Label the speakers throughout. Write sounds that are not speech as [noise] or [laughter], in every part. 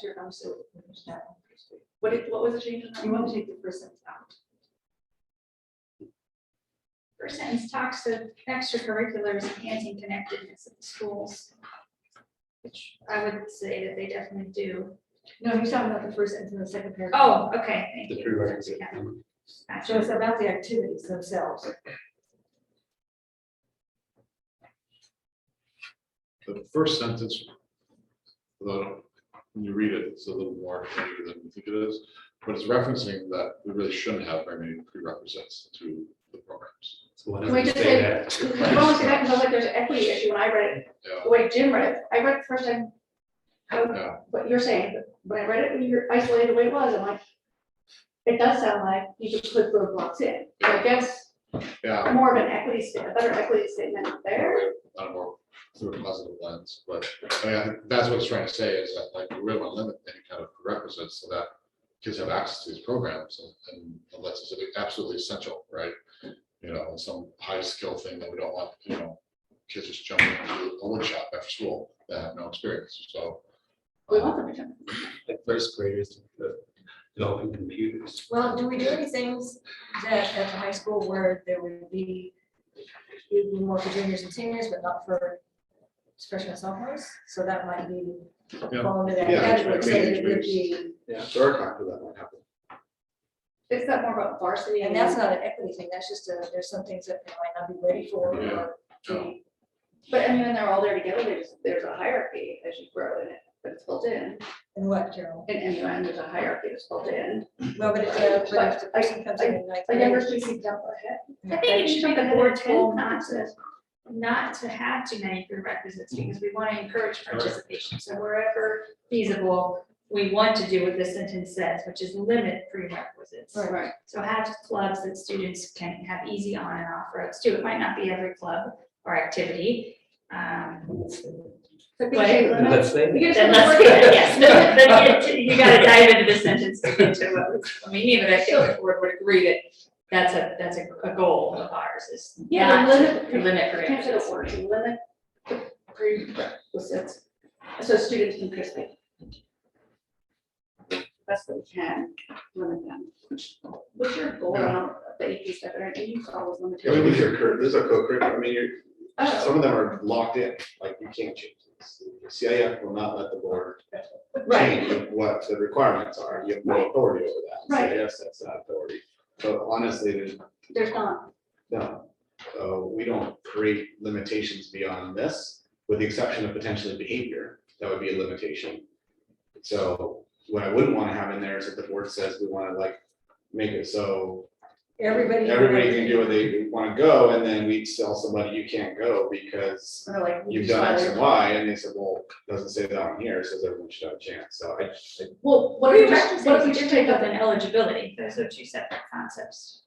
Speaker 1: Sure, I'm so. confused now. What did, what was the change? in that? You want to take the first sentence out?
Speaker 2: First sentence talks of extracurriculars enhancing connectedness of the schools. Which I would say that they definitely do.
Speaker 1: No, you're talking about the first sentence and the second paragraph.
Speaker 2: Oh, okay, thank
Speaker 3: The
Speaker 2: you.
Speaker 3: prerequisite.
Speaker 2: Yeah,
Speaker 3: element.
Speaker 2: gotcha.
Speaker 1: So it's about the activities
Speaker 2: [laughs]
Speaker 1: themselves.
Speaker 4: The first sentence, although uh, when you read it, it's a little more vague than you think it is, but it's referencing that we really shouldn't have very many prerequisites to the programs.
Speaker 3: So why
Speaker 1: Can
Speaker 3: don't
Speaker 1: we
Speaker 3: we
Speaker 1: just
Speaker 3: say
Speaker 1: say-
Speaker 3: that?
Speaker 1: Well, see, that, because I was like, there's an equity issue when I read it,
Speaker 4: Yeah,
Speaker 1: the way Jim read it, I read it the first time. I was-
Speaker 4: yeah,
Speaker 1: what you're saying, but when I read it, when you're isolated the way it was, I'm like, it does sound like you should put roadblocks in. And I guess
Speaker 4: yeah,
Speaker 1: more of an equity statement, a better equity statement there.
Speaker 4: on a more through a positive lens, but I mean, I think that's what it's trying to say is that like we really want to limit any kind of prerequisites so that kids have access to these programs and- and unless it's absolutely essential, right? You know, and some high skill thing that we don't want, you know, kids just jumping into a workshop after school that have no experience, so.
Speaker 1: We want them to come.
Speaker 3: Like first graders uh, developing computers.
Speaker 5: Well, do we do any things that at the high school where there would be, it'd be more for juniors and seniors, but not for freshmen and sophomores? So that might be
Speaker 4: Yeah.
Speaker 5: fall into that
Speaker 4: Yeah,
Speaker 5: category,
Speaker 4: I
Speaker 5: so
Speaker 4: mean,
Speaker 5: it would
Speaker 4: it's-
Speaker 5: be,
Speaker 3: Yeah, there are talk that might happen.
Speaker 1: It's not more about varsity.
Speaker 5: and that's not an equity thing, that's just a, there's some things that they might not be ready for. or
Speaker 4: Yeah.
Speaker 5: to be-
Speaker 1: But I mean, when they're all there together, there's, there's a hierarchy as you grow in it, but it's built in.
Speaker 5: And what, Carol?
Speaker 1: In MUN, there's a hierarchy that's built in.
Speaker 5: No, but if, uh, but if the
Speaker 1: But I-
Speaker 5: person comes in in ninth
Speaker 1: A younger
Speaker 5: grade,
Speaker 1: student can jump ahead.
Speaker 2: I think it should be the board's
Speaker 1: whole
Speaker 2: goal not to, not to have too many prerequisites, because we want to encourage participation. So wherever feasible, we want to do what this sentence says, which is limit prerequisites.
Speaker 5: Right.
Speaker 1: Right.
Speaker 2: So have clubs that students can have easy on and off roads too. It might not be every club or activity. um,
Speaker 1: So
Speaker 2: But-
Speaker 1: PJ limits-
Speaker 3: Let's say.
Speaker 1: you get
Speaker 2: Then
Speaker 1: some
Speaker 2: let's,
Speaker 1: work in.
Speaker 2: yes, [laughs] then- then you- you gotta dive into the sentence to get to what, was- I mean, even I feel the board would agree that that's a, that's a, a goal of ours is.
Speaker 1: Yeah,
Speaker 2: not to
Speaker 1: limit-
Speaker 2: Limit
Speaker 1: I can't say
Speaker 2: prerequisites.
Speaker 1: the word, to limit the prerequisites, so students can participate. That's what we can, limit them. What's your goal on the AP stuff, or AP's always
Speaker 3: I mean, these
Speaker 1: limited?
Speaker 3: are, cur- these are co-curricular, I mean, you're,
Speaker 1: Oh,
Speaker 3: some of them are locked in, like you can't change this. CIF will not let the board
Speaker 1: Right,
Speaker 3: change what the requirements are, you have no authority over that.
Speaker 1: Right.
Speaker 3: CIF sets that authority. So honestly, there's
Speaker 1: there's not,
Speaker 3: No, so we don't create limitations beyond this, with the exception of potentially behavior, that would be a limitation. So what I wouldn't wanna have in there is that the board says we wanna like make it so
Speaker 5: everybody.
Speaker 3: everybody can do what they wanna go, and then we tell somebody you can't go because
Speaker 1: so they're like.
Speaker 3: you've done X and Y, and they said, well, doesn't say that on here, it says everyone should have a chance, so I,
Speaker 1: Well, what if we just, what if we just take up
Speaker 2: an eligibility? Those are two separate concepts.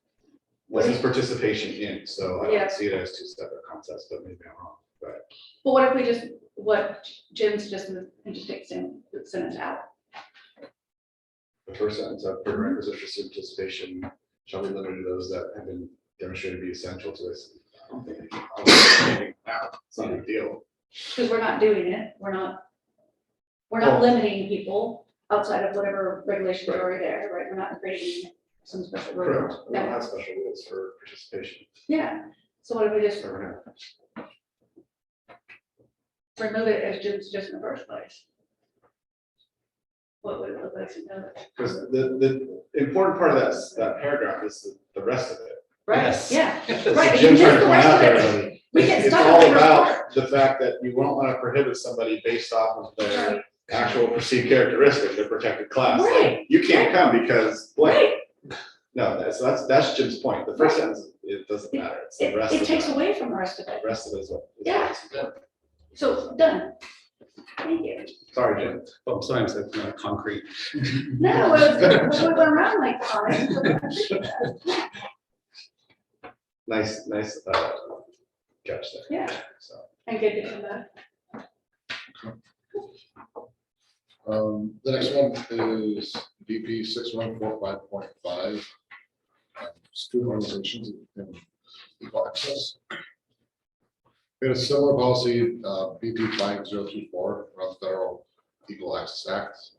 Speaker 3: this is participation in, so I
Speaker 1: Yeah.
Speaker 3: don't see it as two separate concepts, but maybe I'm wrong, but.
Speaker 1: But what if we just, what Jim suggested, and just take Sam, sentence out?
Speaker 3: The first sentence of
Speaker 1: Mm-hmm.
Speaker 3: prerequisite for participation shall be limited to those that have been demonstrated to be essential to this. I don't think I would say that. It's not a big deal.
Speaker 1: Because we're not doing it, we're not, we're
Speaker 3: Oh.
Speaker 1: not limiting people outside of whatever regulations are already there, right? We're not creating some special
Speaker 3: Correct.
Speaker 1: rules.
Speaker 3: We don't have special rules for participation.
Speaker 1: Yeah, so what if we just
Speaker 3: So we're not-
Speaker 1: remove it as Jim's just in the first place? What would it look like to know? that?
Speaker 3: Because the, the important part of that, s- that paragraph is the- the rest of it.
Speaker 1: Right, yeah,
Speaker 3: So
Speaker 1: Right,
Speaker 3: Jim
Speaker 1: because
Speaker 3: tried to
Speaker 1: the
Speaker 3: point
Speaker 1: rest
Speaker 3: out
Speaker 1: of
Speaker 3: to
Speaker 1: it-
Speaker 3: everybody,
Speaker 1: we get
Speaker 3: it's-
Speaker 1: stuck on the
Speaker 3: It's all
Speaker 1: first
Speaker 3: about the fact that you won't want to prohibit somebody based off of their
Speaker 1: Right.
Speaker 3: actual perceived characteristic, their protected class. Like,
Speaker 1: Right.
Speaker 3: You can't come because blank.
Speaker 1: right,
Speaker 3: No, that's, that's, that's Jim's point. The first sentence, it doesn't matter. It's the
Speaker 1: it,
Speaker 3: rest
Speaker 1: it
Speaker 3: of
Speaker 1: takes
Speaker 3: it. uh,
Speaker 1: away from the rest of it,
Speaker 3: The rest of it is what.
Speaker 1: Yeah. so done. Thank you.
Speaker 3: Sorry, Jim.
Speaker 6: Oh, sorry, it's like, uh, concrete.
Speaker 1: No, it was, we went around like, oh, that.
Speaker 3: Nice, nice, uh, catch there.
Speaker 1: Yeah.
Speaker 3: So,
Speaker 1: and good to come back.
Speaker 4: Um, the next one is VP six one four five point five. Student organizations and equal access. We had a similar policy, uh, VP five zero two four, around the federal equal access act.